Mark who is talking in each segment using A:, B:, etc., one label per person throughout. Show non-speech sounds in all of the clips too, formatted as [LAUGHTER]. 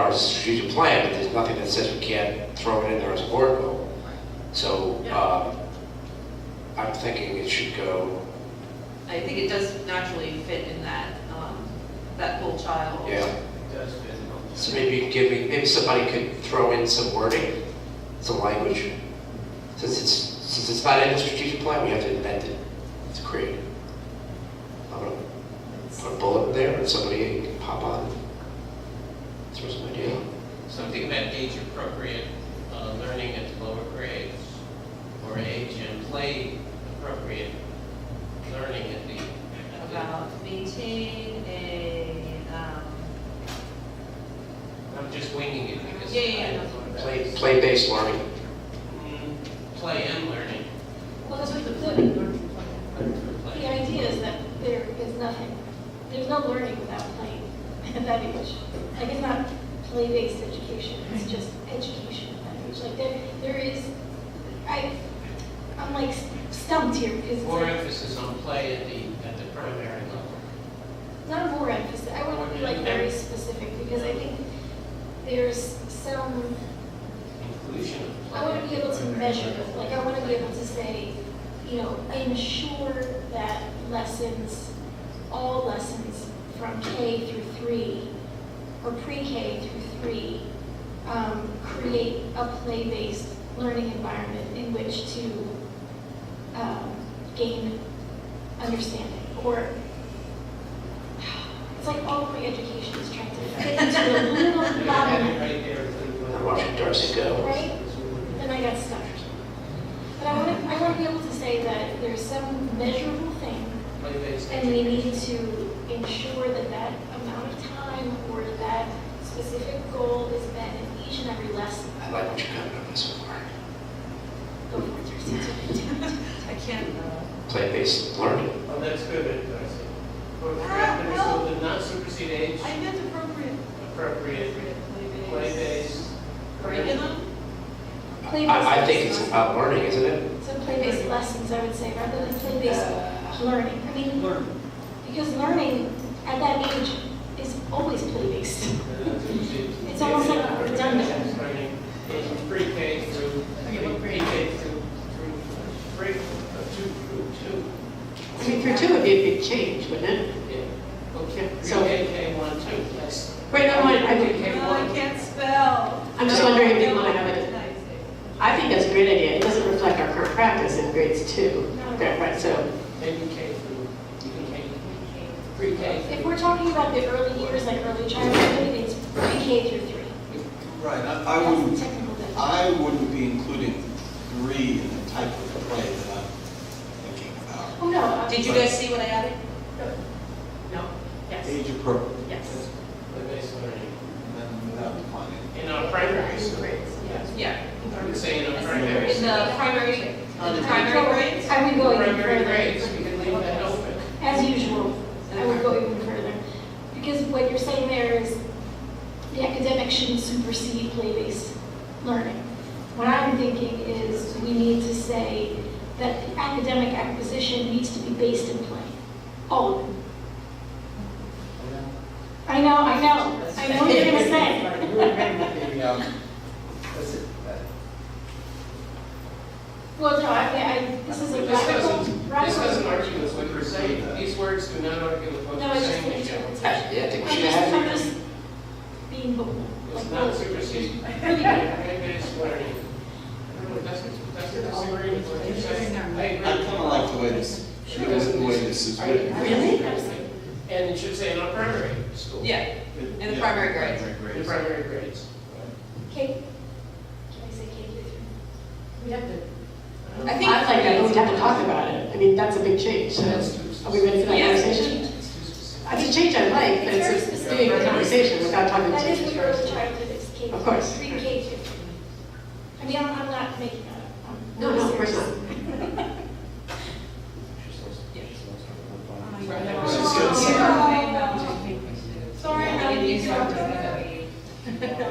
A: our strategic plan, but there's nothing that says we can't throw it in there as a board goal. So, um, I'm thinking it should go,
B: I think it does naturally fit in that, um, that whole child.
A: yeah.
C: does fit in on
A: So maybe giving, maybe somebody could throw in some wording, some language. Since it's, since it's not in the strategic plan, we have to invent it, to create it. I'm gonna put a bullet in there, and somebody can pop on, throw some idea.
C: Something about age-appropriate uh, learning at the lower grades, or age and play-appropriate learning at the, at
B: About maintain a, um,
C: the- I'm just winging it because.
B: Yeah, yeah,
C: I-
B: yeah, that's
A: Play, play-based learning.
C: Mm, Play and learning,
D: Well, that's what the learning learning plan.
C: learn through
D: The
C: play.
D: idea is that there is nothing, there's no learning without playing [LAUGHS] at that age. Like, it's not play-based education, it's just education at that age. Like, there, there is, I, I'm like stumped here because it's
C: More
D: like,
C: emphasis on play at the, at the primary level.
D: not more emphasis, I want to be like very specific because I think there's some,
C: Inclusion of play.
D: I want to be able to measure, like, I want to be able to say, you know, ensure that lessons, all lessons from K through three, or pre-K through three, um, create a play-based learning environment in which to, um, gain understanding, or, it's like all of my education is trying to fit into a little
C: [LAUGHS] Have
D: bottle,
C: it right there. uh, Cleveland.
A: I'm watching Darcy go.
D: right? Then I got stuck. But I want to, I want to be able to say that there's some measurable thing,
C: Play-based.
D: and we need to ensure that that amount of time or that specific goal is met in each and every lesson.
A: I like what you're coming up with so far.
D: Go for it, Darcy. Do it, do it, do it.
B: I can't, uh,
A: Play-based learning.
C: Oh, that's good, advice. Or recommend so the not supersede age
B: I meant appropriate.
C: appropriate play-based.
B: Curriculum?
A: I, I think it's about learning, isn't it?
D: So play-based lessons, I would say, rather than
E: Uh,
D: play-based learning. I mean, because learning at that age is always play-based.
C: uh, It's
D: It's almost like redundant.
C: Learning in pre-K through, pre-K through, through, pre, uh, two, through two.
F: I mean, for two, it'd be a big change, wouldn't it?
C: Yeah.
F: Okay. So,
C: Pre-K, K one, two, that's.
F: wait, no, I, I think,
B: Well, Uh, I can't spell.
F: I'm just wondering if you wanna have it-
B: it.
F: I think that's a great idea. It doesn't reflect our current practice in grades two.
D: No.
F: Okay, Right, so,
C: Maybe K through, even K, pre-K
D: If
C: through.
D: we're talking about the early years, like early childhood, it's pre-K through three.
E: Right, I I
D: That's the
E: wouldn't,
D: technical definition.
E: I wouldn't be including three in the type of play that I'm thinking about.
D: Oh, no. uh,
G: Did you guys see what I added? No? Yes.
E: Age appropriate,
G: Yes.
C: Play-based learning
E: and then without defining.
C: in our primary school.
G: Yes. Yeah.
C: I would say in our primary.
B: In
C: school.
B: the primary,
D: Oh,
B: in the primary grades?
D: I would go even
C: Primary grades,
D: further.
C: we can leave that open.
D: As usual, I would go even further. Because what you're saying there is the academic shouldn't supersede play-based learning. What I'm thinking is we need to say that the academic acquisition needs to be based in play. All of it. I know, I know, I know what you're gonna
C: [LAUGHS]
D: say.
E: Maybe, um, that's it.
D: Well, no, I, I, this is a
C: This
D: radical,
C: doesn't, this doesn't
D: radical.
C: argue with what you're saying, these words do not argue with what
D: No,
C: you're
D: it's just
C: saying,
D: an
C: Michelle.
F: Uh,
D: interpretation.
A: I- Yeah, I think we
D: I'm
A: should
D: just, I'm
A: have.
D: just being vocal.
C: It's not
D: [LAUGHS]
C: supersede, it's learning. That's, that's a disagreement with what you're saying. I
E: I
C: agree.
E: kind of like the way this, the way this is written.
F: really?
C: And it should say in our primary school.
G: Yeah. In the
E: Yeah,
G: primary grades.
E: primary
C: The primary grades.
D: Kate, can I say Kate Lutheran?
F: we have to.
G: I
F: I
G: think-
F: like that, but we'd have to talk about it. I mean, that's a big change. So,
C: That's too
F: are we ready for that
G: Yeah.
F: conversation?
C: It's too specific.
F: It's a change I like, but
D: It's very
F: it's just doing a conversation without talking
D: That is
F: to
D: what
F: each
D: early
F: other.
D: childhood is, K
F: Of course.
D: Pre K through. I mean, I'm, I'm not making that up. I'm
F: No, no, of course
D: serious.
F: not.
C: Right.
E: It's just gonna say-
B: Sorry, I didn't mean to.
E: Yeah,
G: [LAUGHS]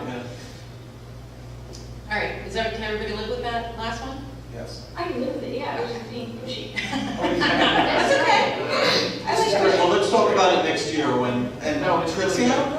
G: All right, is that, can everybody live with that last one?
E: Yes.
D: I knew that, yeah, I was just being
F: [LAUGHS]
D: pushy.
G: That's okay. I like
E: Well, let's talk about it next year when, and
C: No, it's
E: Trixie, how,